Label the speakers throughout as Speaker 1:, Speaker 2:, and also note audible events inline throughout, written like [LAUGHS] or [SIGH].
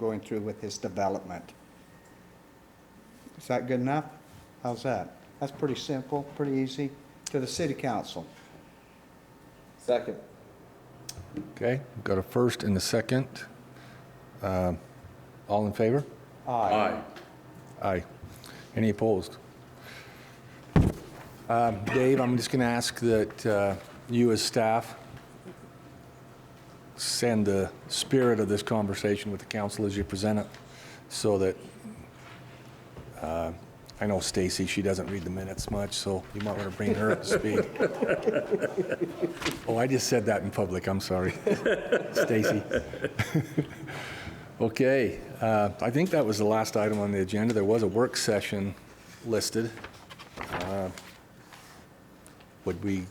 Speaker 1: going through with his development. Is that good enough? How's that? That's pretty simple, pretty easy. To the city council.
Speaker 2: Second.
Speaker 3: Okay, got a first and a second. Um, All in favor?
Speaker 1: Aye.
Speaker 3: Aye. Any opposed? Um, Dave, I'm just going to ask that uh, you, as staff, send the spirit of this conversation with the council as you present it, so that, uh, I know Stacy, she doesn't read the minutes much, so you might want to bring her up to speed. Oh, I just said that in public, I'm sorry. Stacy. [LAUGHS] Okay, uh, I think that was the last item on the agenda. There was a work session listed. Uh, Would we,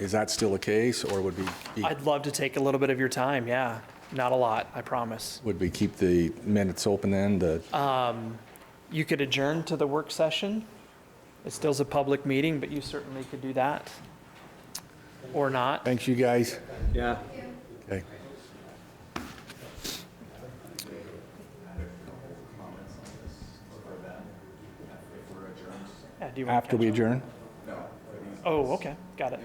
Speaker 3: is that still the case, or would we, be-
Speaker 4: I'd love to take a little bit of your time, yeah. Not a lot, I promise.
Speaker 3: would we keep the minutes open then? The-
Speaker 4: You could adjourn to the work session. It still's a public meeting, but you certainly could do that. Or not.
Speaker 3: Thanks, you guys.
Speaker 2: Yeah.
Speaker 3: Okay.
Speaker 4: Yeah, do you want
Speaker 3: After
Speaker 4: to
Speaker 3: we adjourn?
Speaker 4: Oh, okay, got it.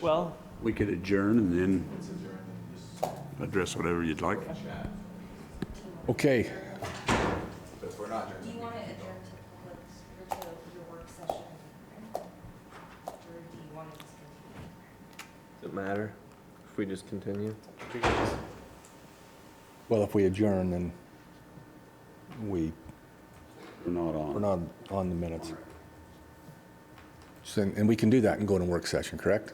Speaker 4: Well,
Speaker 5: We could adjourn and then address whatever you'd like.
Speaker 3: Okay,
Speaker 6: Do you want to adjourn to public, or to your work session? Or do you want to just continue?
Speaker 2: Does it matter if we just continue?
Speaker 3: well, if we adjourn, then we,
Speaker 5: We're not
Speaker 3: we're
Speaker 5: on.
Speaker 3: not on the minutes. So- And we can do that and go to work session, correct?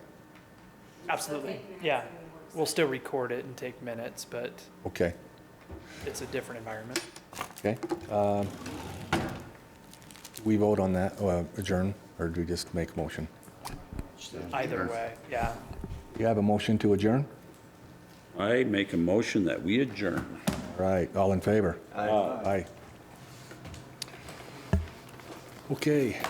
Speaker 4: absolutely, yeah. We'll still record it and take minutes, but
Speaker 3: Okay.
Speaker 4: it's a different environment.
Speaker 3: Okay. um, We vote on that, uh, adjourn, or do we just make a motion?
Speaker 4: Either way, yeah.
Speaker 3: You have a motion to adjourn?
Speaker 5: I make a motion that we adjourn.
Speaker 3: Right, all in favor? Aye. Aye. Okay.